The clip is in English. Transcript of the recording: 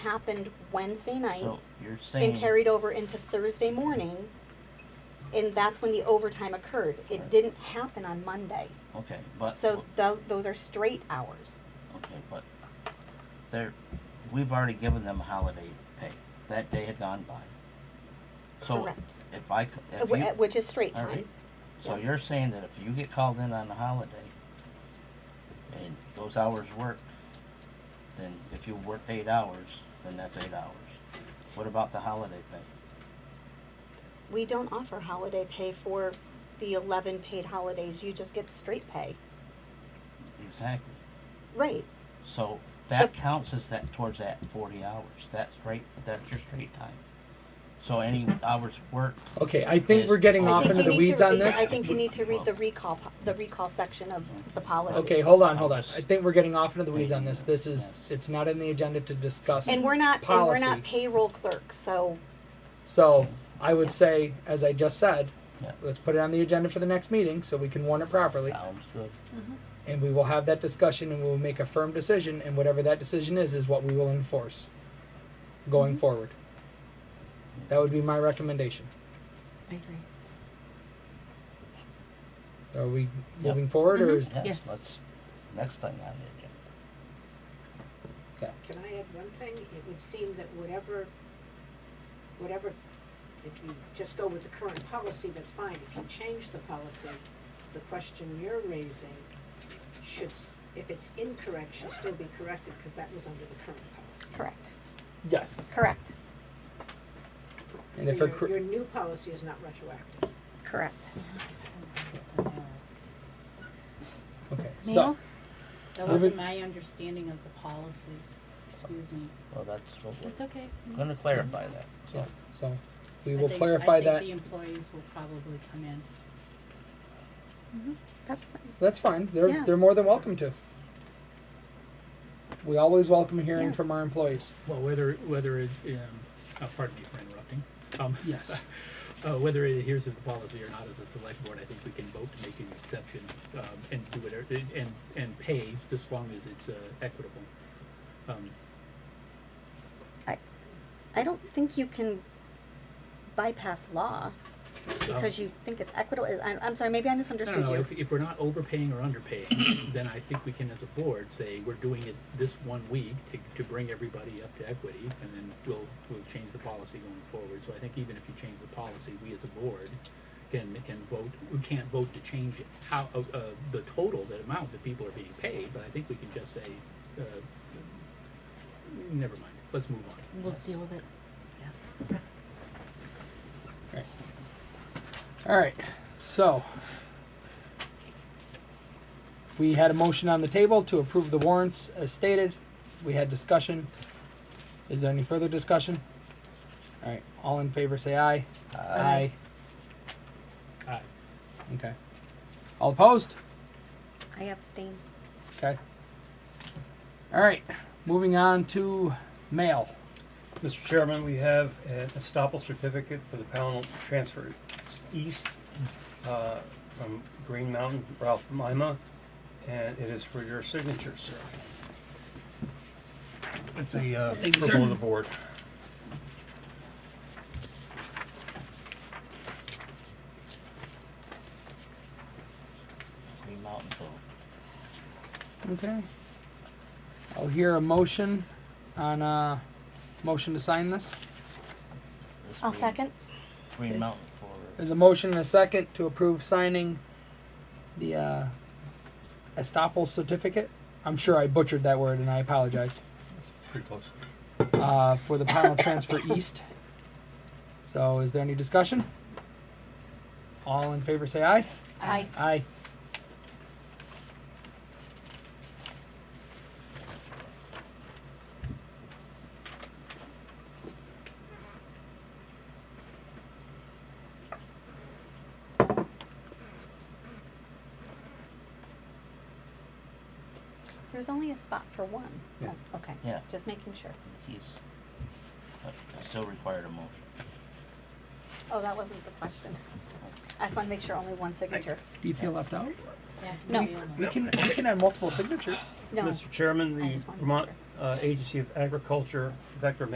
happened Wednesday night So you're saying. and carried over into Thursday morning, and that's when the overtime occurred. It didn't happen on Monday. Okay, but. So those, those are straight hours. Okay, but they're, we've already given them holiday pay. That day had gone by. So Correct. if I, c- if uh, Wh- you. Which is straight All time. right. So Yeah. you're saying that if you get called in on a holiday and those hours worked, then if you work eight hours, then that's eight hours. What about the holiday pay? We don't offer holiday pay for the eleven paid holidays, you just get the straight pay. Exactly. Right, So that The- counts as that towards that forty hours. That's right, that's your straight time. So any hours worked, Okay, I think Is- we're getting I off think into you the need weeds to on read- this. I think you need to read Well- the recall, po- the recall section of the policy. Okay, hold on, hold on. I think we're getting off into the weeds on this. This is, Yes. it's not in the agenda to discuss. And we're not, and we're not Policy. payroll clerks, so So I would say, as I just said, Yeah. let's put it on the agenda for the next meeting so we can warn it properly. sounds good. And we will have that discussion and we will make a firm decision and whatever that decision is, is what we will enforce Mm-hmm. going forward. That would be my recommendation. I agree. Are we Yeah. moving forward or Mhm. is, Mm-hmm. Yeah, Yes. Let's, next thing on the agenda. Can I add one thing? It would seem that whatever, whatever, if you just go with the current policy, that's fine. If you change the policy, the question you're raising should, s- if it's incorrect, should still be corrected, because that was under the current policy. correct, yes. correct, And if her, So cor- your, your new policy is not retroactive. correct. okay, Neil? so, That Uh, wasn't my understanding of the policy, excuse me. Well, that's what It's okay. we're gonna clarify that, so. so we I will think- clarify I that. think the employees will probably come in. Mm-hmm. That's, That's fine. They're Yeah. they're more than welcome to. We always welcome hearing Yeah. from our employees. Well, whether, whether it, um, uh, pardon me for interrupting. Um, yes. Uh, whether it adheres to the policy or not as a select board, I think we can vote to make an exception, um, and do whatever, and, and pay as long as it's, uh, equitable. Um, I don't think you can bypass law because you think it's equitable. I'm, I'm sorry, maybe I I don't misunderstood know, you. if, if we're not overpaying or underpaying, then I think we can as a board say, we're doing it this one week to, to bring everybody up to equity, and then we'll, we'll change the policy going forward. So I think even if you change the policy, we as a board can, can vote, we can't vote to change it, how, uh, uh, the total, the amount that people are being paid, but I think we can just say, uh, never mind, let's move on. We'll deal with it. All right. So we had a motion on the table to approve the warrants as stated. We had discussion. Is there any further discussion? All right. All in favor, say aye. Aye. Aye. Okay. All opposed? I abstain. Okay. All right. Moving on to mail. Mr. Chairman, we have an estoppel certificate for the panel transfer east uh, from Green Mountain, Ralph Mima, and it is for your signature, sir. With the uh, approval of the board. Green Mountain Vote. Okay. I'll hear a motion on uh motion to sign this. This I'll Green- second. Green Mountain for, There's a motion and a second to approve signing the uh estoppel certificate. I'm sure I butchered that word and I apologize. Pretty close. Uh for the panel transfer east. So is there any discussion? All in favor say aye. I Aye. There's only a spot for one. Yeah. Oh, Okay, yeah, just making sure. he's, but it still required a motion. Oh, that wasn't the question. I just want to make sure only one signature. Do you feel left out? Yeah, No. maybe on the- We can we can have multiple signatures. No. Mr. Chairman, I the just wanted to Vermont uh, Agency of Agriculture, Vector